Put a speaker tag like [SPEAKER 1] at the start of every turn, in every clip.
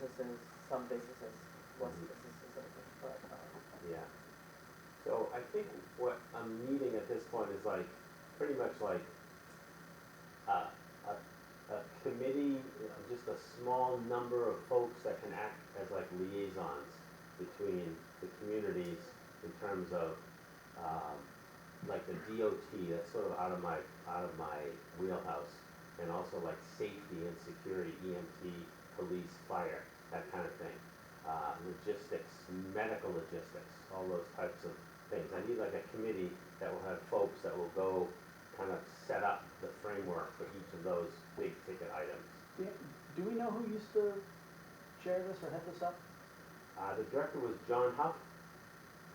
[SPEAKER 1] businesses, some businesses wasn't businesses open, but, um,
[SPEAKER 2] Yeah. So I think what I'm needing at this point is like, pretty much like a, a, a committee, you know, just a small number of folks that can act as like liaisons between the communities in terms of, um, like the DOT, that's sort of out of my, out of my wheelhouse. And also like safety and security, EMT, police, fire, that kind of thing uh, logistics, medical logistics, all those types of things. I need like a committee that will have folks that will go kind of set up the framework for each of those big ticket items.
[SPEAKER 3] Do do we know who used to chair this or head this up?
[SPEAKER 2] Uh, the director was John Huff.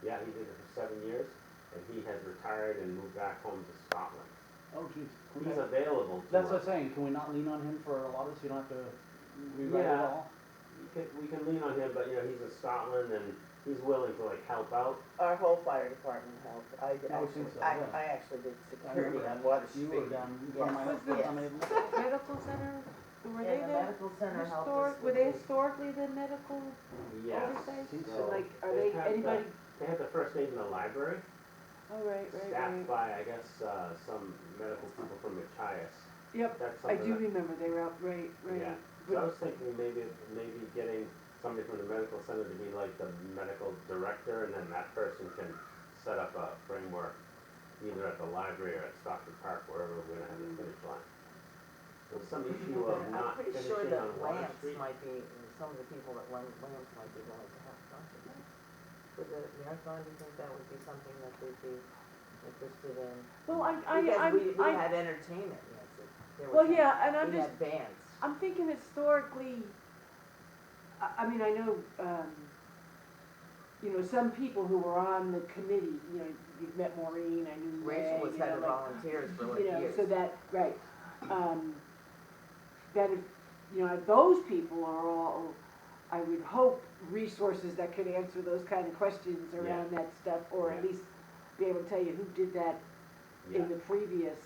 [SPEAKER 2] Yeah, he did it for seven years, and he has retired and moved back home to Scotland.
[SPEAKER 3] Oh, geez.
[SPEAKER 2] He's available to
[SPEAKER 3] That's what
[SPEAKER 2] us.
[SPEAKER 3] I'm saying, can we not lean on him for a lot of this, you don't have to rewrite it
[SPEAKER 2] Yeah.
[SPEAKER 3] all?
[SPEAKER 2] We can, we can lean on him, but you know, he's in Scotland and he's willing to like help out.
[SPEAKER 1] our whole fire department helped. I
[SPEAKER 3] I would
[SPEAKER 1] actually,
[SPEAKER 3] think so,
[SPEAKER 1] I,
[SPEAKER 3] yeah.
[SPEAKER 1] I actually did
[SPEAKER 3] I remember
[SPEAKER 1] security on
[SPEAKER 3] that.
[SPEAKER 1] Water
[SPEAKER 3] You
[SPEAKER 1] Street.
[SPEAKER 3] were down, down my
[SPEAKER 1] Yes.
[SPEAKER 3] own,
[SPEAKER 4] Yes.
[SPEAKER 3] I'm able
[SPEAKER 4] medical center, were they
[SPEAKER 1] And the
[SPEAKER 4] there?
[SPEAKER 1] medical center helped us.
[SPEAKER 4] Historic, were
[SPEAKER 1] with
[SPEAKER 4] they
[SPEAKER 1] it.
[SPEAKER 4] historically the medical
[SPEAKER 2] Yes.
[SPEAKER 4] oversight?
[SPEAKER 3] Seems
[SPEAKER 2] So
[SPEAKER 4] So like, are
[SPEAKER 2] they
[SPEAKER 4] they,
[SPEAKER 2] have the-
[SPEAKER 4] anybody,
[SPEAKER 2] They had the first aid in the library.
[SPEAKER 4] oh, right, right,
[SPEAKER 2] staffed
[SPEAKER 4] right.
[SPEAKER 2] by, I guess, uh, some medical people from Machias.
[SPEAKER 4] Yep,
[SPEAKER 2] That's
[SPEAKER 4] I
[SPEAKER 2] something
[SPEAKER 4] do
[SPEAKER 2] that,
[SPEAKER 4] remember they were out, right,
[SPEAKER 2] Yeah.
[SPEAKER 4] right.
[SPEAKER 2] so I
[SPEAKER 4] But
[SPEAKER 2] was thinking maybe, maybe getting somebody from the medical center to be like the medical director, and then that person can set up a framework either at the library or at Stockton Park, wherever we're gonna have the finish line. There was some issue of
[SPEAKER 1] I'm
[SPEAKER 2] not
[SPEAKER 1] pretty
[SPEAKER 2] finishing
[SPEAKER 1] sure that
[SPEAKER 2] on Water
[SPEAKER 1] Lance
[SPEAKER 2] Street.
[SPEAKER 1] might be, some of the people that Lan- Lance might be willing to help, don't you think? For the marathon, do you think that would be something that they'd be interested in?
[SPEAKER 4] Well, I, I,
[SPEAKER 1] Because we,
[SPEAKER 4] I'm-
[SPEAKER 1] we
[SPEAKER 4] I,
[SPEAKER 1] had entertainment, Nancy. There was-
[SPEAKER 4] well, yeah, and I'm
[SPEAKER 1] We
[SPEAKER 4] just,
[SPEAKER 1] had bands.
[SPEAKER 4] I'm thinking historically, I, I mean, I know, um, you know, some people who were on the committee, you know, you've met Maureen, I knew Ray,
[SPEAKER 1] Rachel was
[SPEAKER 4] you
[SPEAKER 1] head
[SPEAKER 4] know,
[SPEAKER 1] of
[SPEAKER 4] like,
[SPEAKER 1] volunteers for like
[SPEAKER 4] You know,
[SPEAKER 1] years.
[SPEAKER 4] so that, right, um, that if, you know, if those people are all, I would hope, resources that could answer those kind of questions around that stuff, or at
[SPEAKER 2] Yeah.
[SPEAKER 4] least be able to tell you who did that
[SPEAKER 2] Yeah,
[SPEAKER 4] in the previous,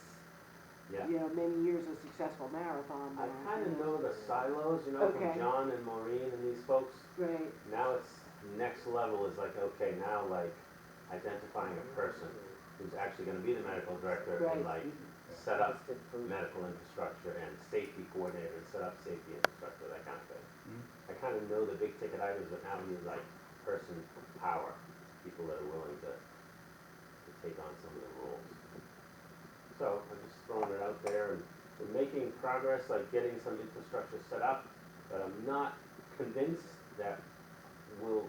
[SPEAKER 2] yeah.
[SPEAKER 4] you know, many years of successful marathon.
[SPEAKER 2] I
[SPEAKER 4] or, you
[SPEAKER 2] kinda know the silos, you know, from
[SPEAKER 4] Okay.
[SPEAKER 2] John and Maureen and these folks.
[SPEAKER 4] Right,
[SPEAKER 2] Now it's, next level is like, okay, now like identifying a person who's actually gonna be the medical director and
[SPEAKER 4] Right.
[SPEAKER 2] like set up
[SPEAKER 1] Just did food.
[SPEAKER 2] medical infrastructure and safety coordinator and set up safety infrastructure, that kind of thing. I kinda know the big ticket items, but now we need like person power, people that are willing to, to take on some of the roles. So I'm just throwing it out there and we're making progress, like getting some infrastructure set up, but I'm not convinced that we'll,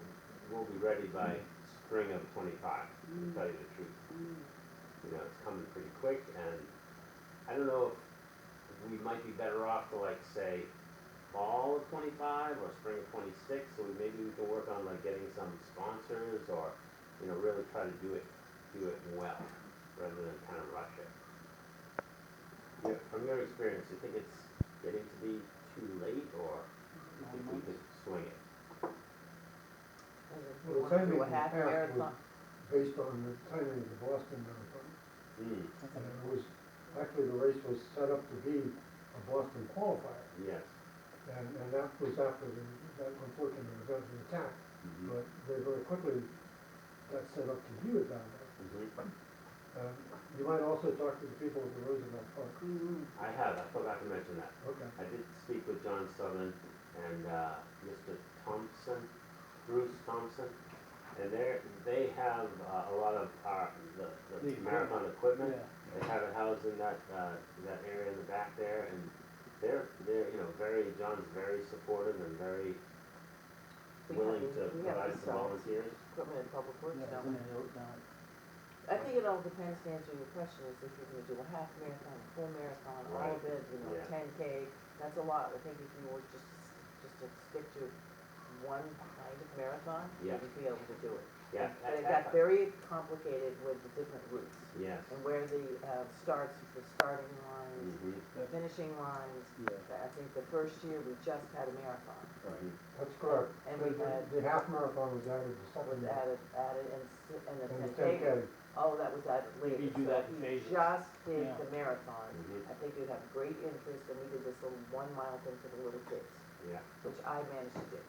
[SPEAKER 2] we'll be ready by spring of twenty-five, to tell you the truth.
[SPEAKER 4] Mm-hmm.
[SPEAKER 2] You know, it's coming pretty quick and I don't know if we might be better off to like say fall of twenty-five or spring of twenty-six, so we- maybe we can work on like getting some sponsors or, you know, really try to do it, do it well, rather than kind of rush it. Yeah, From your experience, you think it's getting to be too late or you think we could swing it?
[SPEAKER 1] And if
[SPEAKER 5] Well,
[SPEAKER 1] you
[SPEAKER 5] the
[SPEAKER 1] wanna do
[SPEAKER 5] timing
[SPEAKER 1] a
[SPEAKER 5] in
[SPEAKER 1] half
[SPEAKER 5] the past
[SPEAKER 1] marathon,
[SPEAKER 5] was based on the timing of the Boston Marathon.
[SPEAKER 2] Mm,
[SPEAKER 5] And it was, actually, the race was set up to be a Boston qualifier.
[SPEAKER 2] yes.
[SPEAKER 5] And, and that was after the, that unfortunate event of the attack.
[SPEAKER 1] Mm-hmm.
[SPEAKER 2] Mhm.
[SPEAKER 5] But they very quickly got set up to be a down there.
[SPEAKER 2] Mhm.
[SPEAKER 5] Um, you might also talk to the people at the Roosevelt Park.
[SPEAKER 4] mm,
[SPEAKER 2] I have, I forgot to mention that.
[SPEAKER 5] Okay.
[SPEAKER 2] I did speak with John Southern and uh, Mr. Thompson, Bruce Thompson, and they're, they have uh, a lot of our, the, the
[SPEAKER 3] The
[SPEAKER 2] marathon
[SPEAKER 3] yeah.
[SPEAKER 2] equipment. They have it housed in that, uh, that area in the back there, and they're, they're, you know, very, John's very supportive and very
[SPEAKER 1] we have,
[SPEAKER 2] willing to
[SPEAKER 1] we have
[SPEAKER 2] provide
[SPEAKER 1] this,
[SPEAKER 2] some
[SPEAKER 1] uh,
[SPEAKER 2] volunteers.
[SPEAKER 1] equipment in public
[SPEAKER 3] Yeah,
[SPEAKER 1] works now.
[SPEAKER 3] isn't it out now?
[SPEAKER 1] I think it all depends to answer your question, is if you're gonna do a half marathon, a full marathon, all of it, you know,
[SPEAKER 2] Yeah.
[SPEAKER 1] ten K, that's a lot. I think if you were just, just to stick to one kind of marathon, you
[SPEAKER 2] Yeah.
[SPEAKER 1] would be able to do it.
[SPEAKER 2] Yeah.
[SPEAKER 1] And it got very complicated with the different routes
[SPEAKER 2] Yes.
[SPEAKER 1] and where the, uh, starts, the starting lines,
[SPEAKER 2] Mhm.
[SPEAKER 1] the finishing lines.
[SPEAKER 3] Yeah.
[SPEAKER 1] I think the first year, we just had a marathon.
[SPEAKER 2] Mm-hmm.
[SPEAKER 5] That's correct.
[SPEAKER 1] And we
[SPEAKER 5] The- the-
[SPEAKER 1] had-
[SPEAKER 5] The half marathon was added to
[SPEAKER 1] was
[SPEAKER 5] second.
[SPEAKER 1] added, added, and, s- and the
[SPEAKER 5] Mm. And the
[SPEAKER 1] ten K,
[SPEAKER 5] 10K.
[SPEAKER 1] all Oh, that was added later.
[SPEAKER 3] You do
[SPEAKER 1] So
[SPEAKER 3] that
[SPEAKER 1] if
[SPEAKER 3] in
[SPEAKER 1] you
[SPEAKER 3] phases.
[SPEAKER 1] Just did
[SPEAKER 3] Yeah.
[SPEAKER 1] the marathon.
[SPEAKER 2] Mhm.
[SPEAKER 1] I think you'd have great interest, and we did this little one mile thing for the little kids,
[SPEAKER 2] Yeah.
[SPEAKER 1] which I managed to do.